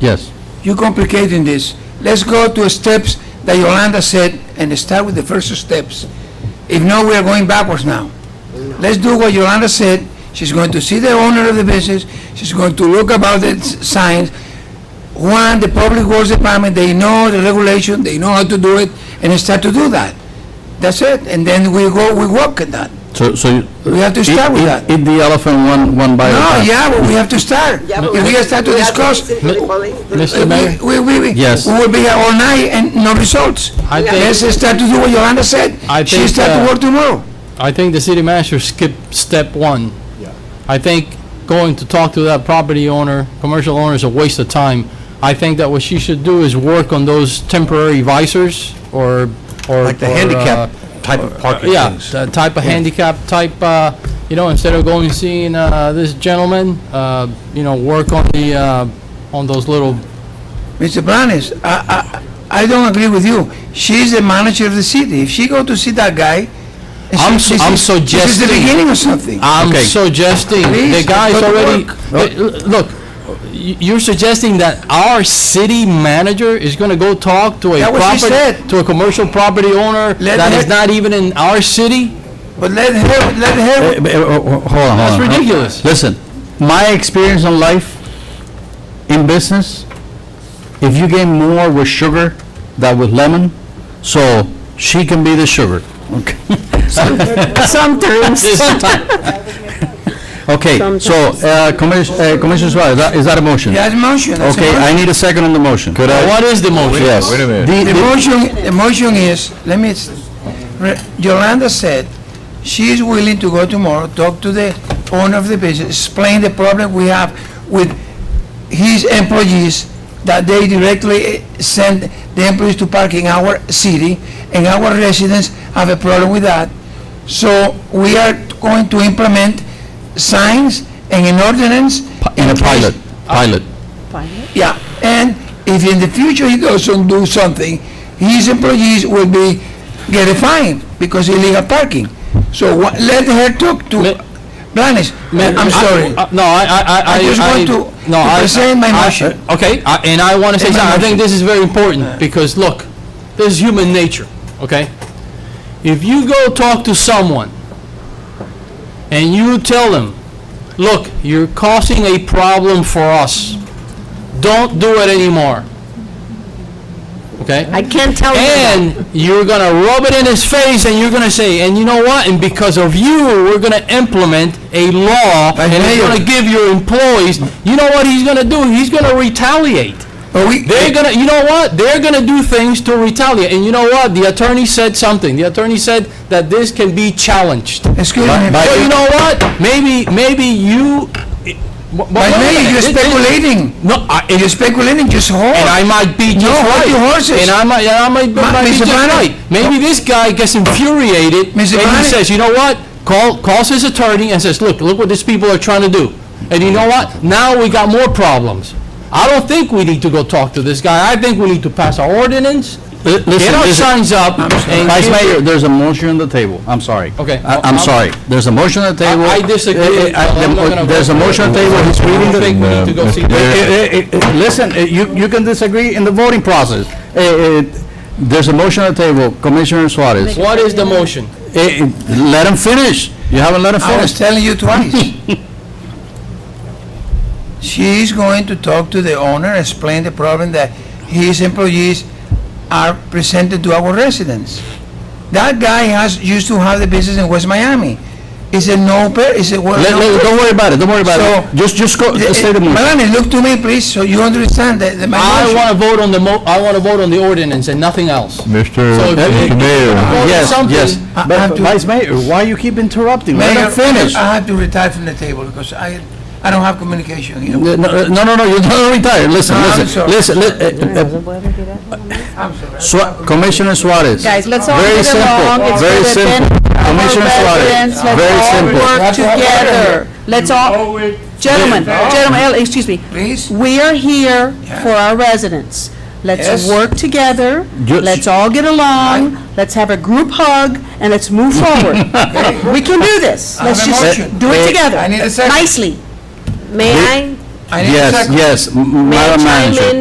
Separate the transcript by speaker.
Speaker 1: Yes.
Speaker 2: You're complicating this. Let's go to steps that Yolanda said and start with the first steps. If not, we are going backwards now. Let's do what Yolanda said. She's going to see the owner of the business. She's going to look about the s- signs. One, the Public Works Department, they know the regulation, they know how to do it, and start to do that. That's it. And then we go, we work at that.
Speaker 1: So, so you...
Speaker 2: We have to start
Speaker 1: Eat-
Speaker 2: with
Speaker 1: eat-
Speaker 2: that.
Speaker 1: Eat the elephant one, one bite at a
Speaker 2: No,
Speaker 1: time.
Speaker 2: yeah, but we have to start.
Speaker 3: Yeah, but
Speaker 2: If we start to
Speaker 3: we have
Speaker 2: discuss,
Speaker 3: listen to the police.
Speaker 1: Mr.
Speaker 2: We-
Speaker 1: Mayor?
Speaker 2: We, we, we.
Speaker 1: Yes.
Speaker 2: We will be here all night and no results.
Speaker 4: I
Speaker 3: Yeah.
Speaker 4: think,
Speaker 2: Let's start to do what Yolanda said.
Speaker 4: I
Speaker 2: She
Speaker 4: think,
Speaker 2: start
Speaker 4: uh,
Speaker 2: to work tomorrow.
Speaker 4: I think the city manager skipped step one. I think going to talk to that property owner, commercial owner, is a waste of time. I think that what she should do is work on those temporary visors or, or...
Speaker 5: Like the
Speaker 4: or, uh,
Speaker 5: handicap type of parking
Speaker 4: Yeah,
Speaker 5: things.
Speaker 4: the type of handicap, type, uh, you know, instead of going and seeing, uh, this gentleman, uh, you know, work on the, uh, on those little,
Speaker 2: Mr. Blanes, I, I, I don't agree with you. She's the manager of the city. If she go to see that guy, and
Speaker 4: I'm
Speaker 2: she-
Speaker 4: su- I'm
Speaker 2: this is- This is the
Speaker 4: suggesting-
Speaker 2: beginning of something.
Speaker 4: I'm
Speaker 1: Okay.
Speaker 4: suggesting, the
Speaker 2: Please,
Speaker 4: guy's
Speaker 2: good
Speaker 4: already,
Speaker 2: work.
Speaker 4: Wait, l- look, y- you're suggesting that our city manager is gonna go talk to a
Speaker 2: That was
Speaker 4: property,
Speaker 2: she said.
Speaker 4: to a commercial property owner
Speaker 2: Let
Speaker 4: that is
Speaker 2: her-
Speaker 4: not even in our city?
Speaker 2: But let her, let her,
Speaker 1: Eh, eh, eh, oh, oh, Hold on, hold on. Uh,
Speaker 4: That's ridiculous.
Speaker 1: Listen, my experience in life, in business, if you get more with sugar than with lemon, so she can be the sugar, okay? Sometimes. Okay, so, uh, Commis- uh, Commissioner Suarez, that- is that a motion?
Speaker 2: that's motion, that's a
Speaker 1: Okay, I
Speaker 2: motion.
Speaker 1: need a second on the motion. Could
Speaker 4: What is the motion?
Speaker 1: Yes.
Speaker 5: Wait a minute.
Speaker 1: The-
Speaker 2: The
Speaker 1: the-
Speaker 2: motion, the motion is, let me, s- re- Yolanda said she is willing to go tomorrow, talk to the owner of the business, explain the problem we have with his employees, that they directly send the employees to park in our city, and our residents have a problem with that. So we are going to implement signs and an ordinance.
Speaker 1: In a
Speaker 2: case-
Speaker 1: pilot, pilot.
Speaker 2: yeah, and if in the future he doesn't do something, his employees will be, get a fine because illegal parking. So wha- let her talk
Speaker 4: Ma-
Speaker 2: to Blanes. I'm sorry.
Speaker 4: I- uh, No, I, I, I.
Speaker 2: I just want to-
Speaker 4: no,
Speaker 2: to
Speaker 4: I-
Speaker 2: present my
Speaker 4: I-
Speaker 2: motion.
Speaker 4: Okay, I- and I want to say
Speaker 2: my
Speaker 4: something, I
Speaker 2: motion.
Speaker 4: think this is very important, because look, this is human nature, okay? If you go talk to someone, and you tell them, look, you're causing a problem for us, don't do it anymore. Okay?
Speaker 3: I can't tell you that.
Speaker 4: And you're gonna rub it in his face, and you're gonna say, and you know what? And because of you, we're gonna implement a law,
Speaker 2: But
Speaker 4: and it's
Speaker 2: Mayor-
Speaker 4: gonna give your employees, you know what he's gonna do? He's gonna retaliate.
Speaker 2: But we,
Speaker 4: They're gonna, you know what? They're gonna do things to retaliate. And you know what? The attorney said something. The attorney said that this can be challenged.
Speaker 2: excuse me.
Speaker 1: By-
Speaker 4: But you know what? Maybe, maybe you. eh, But
Speaker 2: But Mayor, you're speculating.
Speaker 4: No, I, it
Speaker 2: You're
Speaker 4: is
Speaker 2: speculating, just hold.
Speaker 4: and I might be just
Speaker 2: No, hold
Speaker 4: right.
Speaker 2: your horses.
Speaker 4: And I might, and I might,
Speaker 2: Ma-
Speaker 4: might be
Speaker 2: Mr.
Speaker 4: just
Speaker 2: Brennan.
Speaker 4: right. Maybe this guy gets infuriated
Speaker 2: Mr.
Speaker 4: and
Speaker 2: Brennan.
Speaker 4: he says, you know what? Call, calls his attorney and says, look, look what these people are trying to do. And you know what? Now we got more problems. I don't think we need to go talk to this guy. I think we need to pass our ordinance,
Speaker 1: Li-
Speaker 4: get
Speaker 1: listen,
Speaker 4: our
Speaker 1: listen.
Speaker 4: signs up, and
Speaker 1: Vice
Speaker 4: give-
Speaker 1: Mayor, there's a motion on the table, I'm sorry.
Speaker 4: Okay.
Speaker 1: I- I'm
Speaker 4: I'll-
Speaker 1: sorry, there's a motion on the table.
Speaker 4: I disagree.
Speaker 1: Eh, eh, I-
Speaker 4: I'm not gonna
Speaker 1: There's a
Speaker 4: vote for
Speaker 1: motion on the
Speaker 4: it.
Speaker 1: table, he's
Speaker 4: I
Speaker 1: reading
Speaker 4: don't
Speaker 1: the...
Speaker 4: think we need to go see.
Speaker 1: Eh, eh, eh, eh, Listen, eh, you, you can disagree in the voting process. Eh, eh, There's a motion on the table, Commissioner Suarez. Eh,
Speaker 4: What is the motion?
Speaker 1: eh, Let him finish, you haven't let him
Speaker 2: I was
Speaker 1: finish.
Speaker 2: telling you twice. She is going to talk to the owner, explain the problem that his employees are presented to our residents. That guy has, used to have the business in West Miami. Is it no, per- is it?
Speaker 1: Let- let- Don't worry about it, don't worry about
Speaker 2: So-
Speaker 1: it. Just,
Speaker 4: eh,
Speaker 1: just go, just say the motion.
Speaker 2: Melanie, look to me, please, so you understand that, that my
Speaker 4: I
Speaker 2: motion-
Speaker 4: want to vote on the mo, I want to vote on the ordinance and nothing else.
Speaker 6: Mr.
Speaker 4: So if you-
Speaker 6: Mr. Mayor,
Speaker 4: Vote on
Speaker 1: Yes,
Speaker 4: something.
Speaker 1: yes.
Speaker 2: I- I
Speaker 1: But
Speaker 2: have to-
Speaker 1: Vice Mayor, why you keep interrupting? Let
Speaker 2: Mayor,
Speaker 1: him finish.
Speaker 2: I have to retire from the table because I, I don't have communication, you know.
Speaker 1: No, no, no, no, you're not retired, listen,
Speaker 2: No, I'm
Speaker 1: listen,
Speaker 2: sorry.
Speaker 1: listen, li- eh, eh,
Speaker 2: I'm sorry.
Speaker 1: Sua- Commissioner Suarez.
Speaker 7: Guys, let's all
Speaker 1: Very
Speaker 7: get
Speaker 1: simple,
Speaker 7: along. It's
Speaker 1: very
Speaker 7: for the
Speaker 1: simple.
Speaker 7: benefit of our
Speaker 1: Commissioner Suarez,
Speaker 7: residents.
Speaker 1: very simple.
Speaker 7: Let's all work together. Let's all, gentlemen, gentlemen, eh, excuse me.
Speaker 2: Please?
Speaker 7: We are here for our residents.
Speaker 2: Yes.
Speaker 7: Let's work together.
Speaker 1: Yes.
Speaker 7: Let's all get along. Let's have a group hug and let's move forward. We can do this.
Speaker 2: I have
Speaker 7: Let's
Speaker 2: a
Speaker 7: just
Speaker 2: motion.
Speaker 7: do it
Speaker 1: Eh,
Speaker 7: together.
Speaker 2: I need a second.
Speaker 7: Nicely.
Speaker 3: May I?
Speaker 8: I need to
Speaker 1: Yes,
Speaker 8: check-
Speaker 1: yes, m- m-
Speaker 2: May I
Speaker 1: Madam
Speaker 2: chime
Speaker 1: Manager.
Speaker 2: in?